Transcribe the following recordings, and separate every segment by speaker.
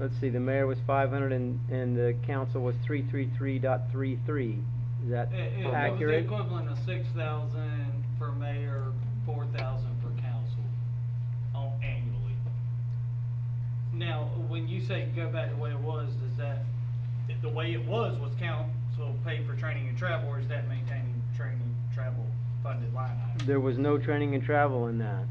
Speaker 1: let's see, the mayor was five hundred and, and the council was three three three dot three three. Is that
Speaker 2: It, it Eh, was the
Speaker 1: accurate?
Speaker 2: equivalent of six thousand for mayor, four thousand for council, on annually. Now, when you say go back the way it was, does that, the- the way it was was council paid for training and travel, or is that maintaining training, travel funded line item?
Speaker 1: There was no training and travel in that.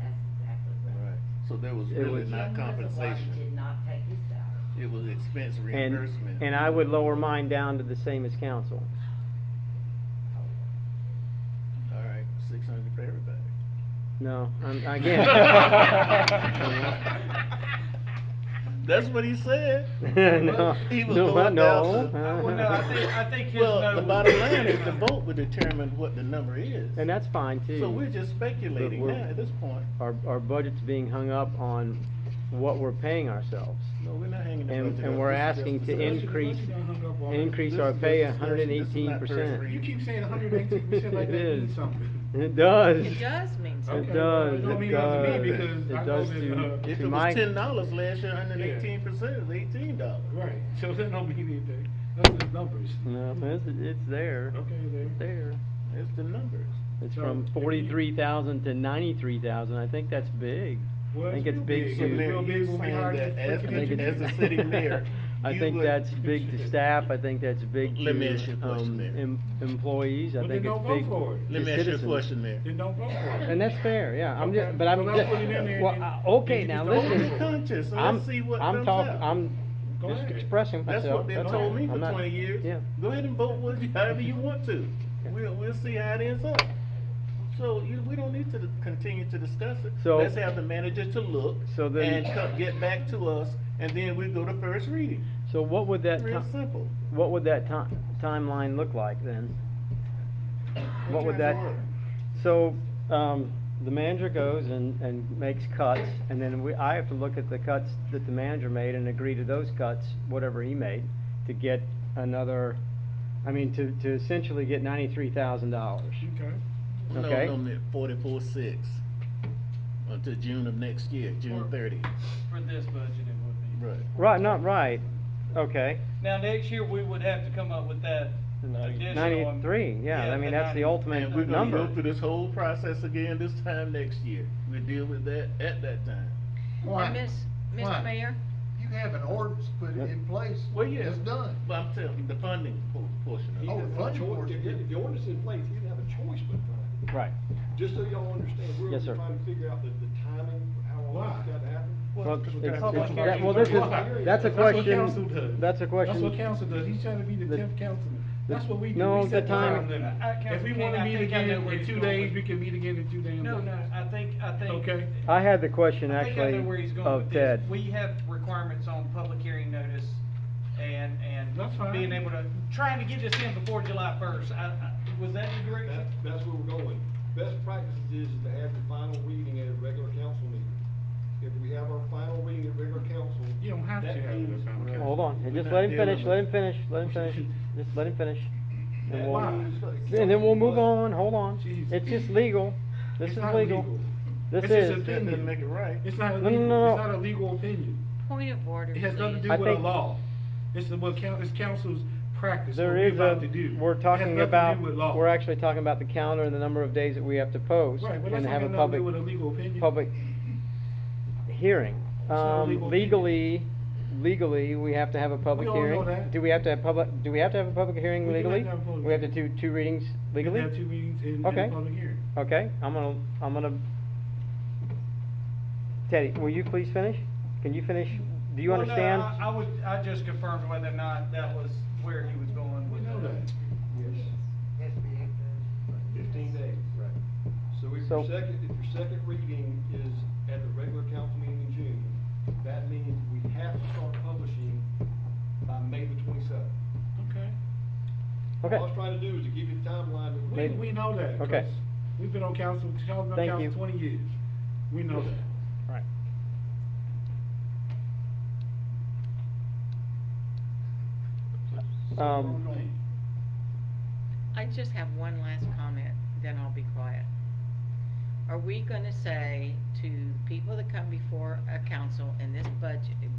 Speaker 3: That's exactly right.
Speaker 4: So there was
Speaker 1: It
Speaker 4: really
Speaker 1: was-
Speaker 4: not
Speaker 3: Jim was the one who Did
Speaker 4: compensation.
Speaker 3: not take his salary.
Speaker 4: It was expense
Speaker 1: And,
Speaker 4: reimbursement.
Speaker 1: and I would lower mine down to the same as council.
Speaker 4: All right, six hundred for everybody.
Speaker 1: No, I'm, again.
Speaker 4: That's what he said.
Speaker 1: No,
Speaker 4: He was
Speaker 1: no,
Speaker 4: going
Speaker 1: no.
Speaker 4: down.
Speaker 1: Uh-huh.
Speaker 4: to-
Speaker 1: Well, no, I think-
Speaker 2: I think his
Speaker 4: Well,
Speaker 2: no
Speaker 4: the
Speaker 2: was
Speaker 4: bottom line is the
Speaker 2: 600.
Speaker 4: vote would determine what the number is.
Speaker 1: And that's fine too.
Speaker 4: So we're just speculating
Speaker 1: But
Speaker 4: now
Speaker 1: we're-
Speaker 4: at this point.
Speaker 1: Our, our budget's being hung up on what we're paying ourselves.
Speaker 4: No, we're not hanging the
Speaker 1: And-
Speaker 4: budget
Speaker 1: and
Speaker 4: up.
Speaker 1: we're
Speaker 4: This is just
Speaker 1: asking to
Speaker 4: discussion.
Speaker 1: increase-
Speaker 5: Don't hung up on it.
Speaker 1: Increase
Speaker 4: This
Speaker 1: our
Speaker 4: is
Speaker 1: pay
Speaker 4: just discussion.
Speaker 1: hundred and
Speaker 4: This is
Speaker 1: eighteen
Speaker 4: not first
Speaker 1: percent.
Speaker 4: reading.
Speaker 5: You keep saying hundred and eighteen percent like that means something.
Speaker 1: It does.
Speaker 6: It does mean
Speaker 1: It
Speaker 5: Okay,
Speaker 6: something.
Speaker 5: well,
Speaker 1: does,
Speaker 5: it don't
Speaker 1: it
Speaker 5: mean nothing to me
Speaker 1: does.
Speaker 5: because I
Speaker 1: It
Speaker 5: know
Speaker 1: does
Speaker 5: that,
Speaker 1: to,
Speaker 5: uh,
Speaker 4: If
Speaker 1: to
Speaker 4: it
Speaker 1: my,
Speaker 4: was ten dollars last year, hundred and eighteen percent is eighteen dollars.
Speaker 5: Right, so that don't mean anything, that's just numbers.
Speaker 1: no, it's, it's there.
Speaker 5: Okay, there.
Speaker 1: It's there.
Speaker 4: It's the numbers.
Speaker 1: It's
Speaker 5: So,
Speaker 1: from
Speaker 5: if you-
Speaker 1: forty-three thousand to ninety-three thousand. I think that's big.
Speaker 5: Well,
Speaker 1: I think it's
Speaker 5: real
Speaker 1: big
Speaker 4: So
Speaker 5: It's
Speaker 1: to,
Speaker 5: real
Speaker 4: Mayor,
Speaker 5: big
Speaker 4: you
Speaker 5: when we
Speaker 4: saying
Speaker 5: hired
Speaker 4: that
Speaker 5: the
Speaker 4: as,
Speaker 5: freaking
Speaker 4: the-
Speaker 5: engineer.
Speaker 4: as a city mayor,
Speaker 1: I
Speaker 4: you
Speaker 1: think
Speaker 4: would-
Speaker 1: that's big to staff. I think that's big
Speaker 4: Let me ask you
Speaker 1: to,
Speaker 4: a question,
Speaker 1: um,
Speaker 4: Mayor.
Speaker 1: em- employees. I
Speaker 5: Well, then
Speaker 1: think it's
Speaker 5: don't vote
Speaker 1: big
Speaker 5: for it.
Speaker 1: to
Speaker 4: Let me ask you a
Speaker 1: citizens.
Speaker 4: question, Mayor.
Speaker 5: Then don't vote for it.
Speaker 1: And that's fair, yeah, I'm
Speaker 5: Okay.
Speaker 1: just, but I'm
Speaker 5: Well,
Speaker 1: just,
Speaker 5: I'll put it in there
Speaker 1: well,
Speaker 5: and
Speaker 1: I-
Speaker 5: then
Speaker 1: okay,
Speaker 5: you
Speaker 1: now
Speaker 5: just
Speaker 4: Vote
Speaker 5: don't
Speaker 1: listen.
Speaker 4: your conscience, and
Speaker 1: I'm-
Speaker 4: let's see what
Speaker 1: I'm
Speaker 4: comes
Speaker 1: talking.
Speaker 4: out.
Speaker 1: I'm
Speaker 5: Go
Speaker 1: just
Speaker 5: ahead.
Speaker 1: expressing myself.
Speaker 4: That's what they
Speaker 1: that's all.
Speaker 4: told me for
Speaker 1: I'm not-
Speaker 4: twenty years.
Speaker 1: Yeah,
Speaker 4: Go ahead and vote with, however you want to. We'll, we'll see how it ends up. So you, we don't need to di- continue to discuss it.
Speaker 1: So-
Speaker 4: Let's have the manager to look
Speaker 1: So then-
Speaker 4: and co- get back to us, and then we go to first reading.
Speaker 1: so what would that,
Speaker 4: Real
Speaker 1: ti-
Speaker 4: simple.
Speaker 1: what would that ti- timeline look like then? What would that, so, um, the manager goes and, and makes cuts, and then we, I have to look at the cuts that the manager made and agree to those cuts, whatever he made, to get another, I mean, to, to essentially get ninety-three thousand dollars.
Speaker 5: Okay.
Speaker 1: Okay.
Speaker 4: No, no, forty-four six, until June of next year, June
Speaker 2: Or-
Speaker 4: thirtieth.
Speaker 2: For this budget, it would be.
Speaker 4: Right.
Speaker 1: Right, not right, okay.
Speaker 2: Now, next year, we would have to come up with that additional.
Speaker 1: Ninety-three, yeah, I mean,
Speaker 2: the
Speaker 1: that's the
Speaker 2: 90.
Speaker 1: ultimate
Speaker 4: And we're gonna
Speaker 1: number.
Speaker 4: go through this whole process again this time next year. We'll deal with that at that time.
Speaker 6: And Miss, Mr. Mayor,
Speaker 7: You have an ordinance put
Speaker 1: Yep.
Speaker 7: in place.
Speaker 4: Well, yeah.
Speaker 7: It's done.
Speaker 4: But I'm telling you, the funding po- portion of it.
Speaker 7: Oh, the funding
Speaker 8: If
Speaker 7: portion.
Speaker 8: if the ordinance is in place, you have a choice but to,
Speaker 1: Right.
Speaker 8: just so y'all understand, we're
Speaker 1: Yes, sir.
Speaker 8: trying to figure out the, the timing, how long it's
Speaker 5: Why?
Speaker 8: got to happen.
Speaker 1: Well,
Speaker 4: Well,
Speaker 1: it's-
Speaker 4: that's
Speaker 1: it's-
Speaker 4: public
Speaker 5: hearing.
Speaker 1: that- well, this is, that's a
Speaker 5: That's what council
Speaker 1: question,
Speaker 5: does.
Speaker 1: that's a
Speaker 5: That's what
Speaker 1: question,
Speaker 5: council does, he's trying to be the
Speaker 1: The-
Speaker 5: tenth councilman, that's what we do.
Speaker 1: No,
Speaker 5: We
Speaker 1: the
Speaker 5: set
Speaker 1: time-
Speaker 5: limit.
Speaker 2: I- I-
Speaker 5: If we
Speaker 2: Councilman King,
Speaker 5: wanna
Speaker 2: I
Speaker 5: meet
Speaker 2: think I
Speaker 5: again
Speaker 2: know where
Speaker 5: in
Speaker 2: he's
Speaker 5: two
Speaker 2: going
Speaker 5: days,
Speaker 2: with
Speaker 5: we
Speaker 2: this.
Speaker 5: can meet again in two damn days.
Speaker 2: No, no, I think, I think.
Speaker 5: Okay.
Speaker 1: I had the question
Speaker 2: I think I know
Speaker 1: actually
Speaker 2: where he's going
Speaker 1: of
Speaker 2: with this.
Speaker 1: Ted.
Speaker 2: We have requirements on public hearing notice and, and.
Speaker 5: That's fine.
Speaker 2: Being able to, trying to get this in before July first. I, I, was that the
Speaker 8: That,
Speaker 2: direction?
Speaker 8: that's where we're going. Best practices is to have the final reading at a regular council meeting. If we have our final reading at regular council.
Speaker 5: You don't have to
Speaker 8: that
Speaker 5: have it at
Speaker 8: means-
Speaker 5: final council.
Speaker 1: Hold on,
Speaker 4: We're
Speaker 1: just
Speaker 4: not
Speaker 1: let him
Speaker 4: dealing
Speaker 1: finish,
Speaker 4: with-
Speaker 1: let him finish, let him finish, just let him finish.
Speaker 8: that
Speaker 1: And we'll,
Speaker 8: means the
Speaker 1: and then we'll move
Speaker 8: council
Speaker 1: on, hold on,
Speaker 5: Jeez.
Speaker 1: it's just legal, this
Speaker 5: It's
Speaker 1: is
Speaker 5: not
Speaker 1: legal,
Speaker 5: legal.
Speaker 1: this
Speaker 5: It's just a
Speaker 1: is,
Speaker 5: thing.
Speaker 4: That doesn't make it right.
Speaker 5: It's not
Speaker 1: No, no,
Speaker 5: illegal,
Speaker 1: no, no.
Speaker 5: it's not a legal opinion,
Speaker 6: point of order,
Speaker 5: it
Speaker 6: please.
Speaker 5: has nothing to do
Speaker 1: I
Speaker 5: with a
Speaker 1: think-
Speaker 5: law, it's the, what coun, it's council's practice, what
Speaker 1: there
Speaker 5: we're
Speaker 1: is
Speaker 5: about
Speaker 1: a,
Speaker 5: to do.
Speaker 1: we're
Speaker 5: It has
Speaker 1: talking
Speaker 5: nothing to do
Speaker 1: about,
Speaker 5: with law.
Speaker 1: we're actually talking about the calendar and the number of days that we have to post
Speaker 5: Right, but
Speaker 1: and
Speaker 5: that's
Speaker 1: have a
Speaker 5: not
Speaker 1: public,
Speaker 5: gonna do with a legal opinion.
Speaker 1: public hearing.
Speaker 5: not a
Speaker 1: Um,
Speaker 5: legal
Speaker 1: legally, legally, we have to have a public
Speaker 5: We all know
Speaker 1: hearing.
Speaker 5: that.
Speaker 1: Do we have to have public, do we have to have a public hearing
Speaker 5: We do have to
Speaker 1: legally?
Speaker 5: have a public
Speaker 1: We have to do
Speaker 5: hearing.
Speaker 1: two readings
Speaker 5: You can
Speaker 1: legally?
Speaker 5: have two meetings in, in
Speaker 1: Okay.
Speaker 5: a public hearing.
Speaker 1: Okay, I'm gonna, I'm gonna, Teddy, will you please finish? Can you finish? Do you
Speaker 2: Well, no,
Speaker 1: understand?
Speaker 2: I I would, I just confirmed whether or not that was where he was going
Speaker 5: We
Speaker 2: with
Speaker 5: know that.
Speaker 2: that.
Speaker 8: Fifteen days. Right. So if
Speaker 1: So-
Speaker 8: your second, if your second reading is at the regular council meeting in June, that means we have to start publishing by May the twenty-seventh.
Speaker 5: Okay.
Speaker 1: Okay,
Speaker 8: All I was trying to do is to give you the timeline that
Speaker 5: We,
Speaker 1: Maybe.
Speaker 5: we know that.
Speaker 1: Okay.
Speaker 5: 'cause We've been on council, council,
Speaker 1: Thank you.
Speaker 5: council twenty years. We know that.
Speaker 1: all right.
Speaker 5: So where
Speaker 1: Um,
Speaker 5: we going?
Speaker 6: I just have one last comment, then I'll be quiet. Are we gonna say to people that come before a council in this budget,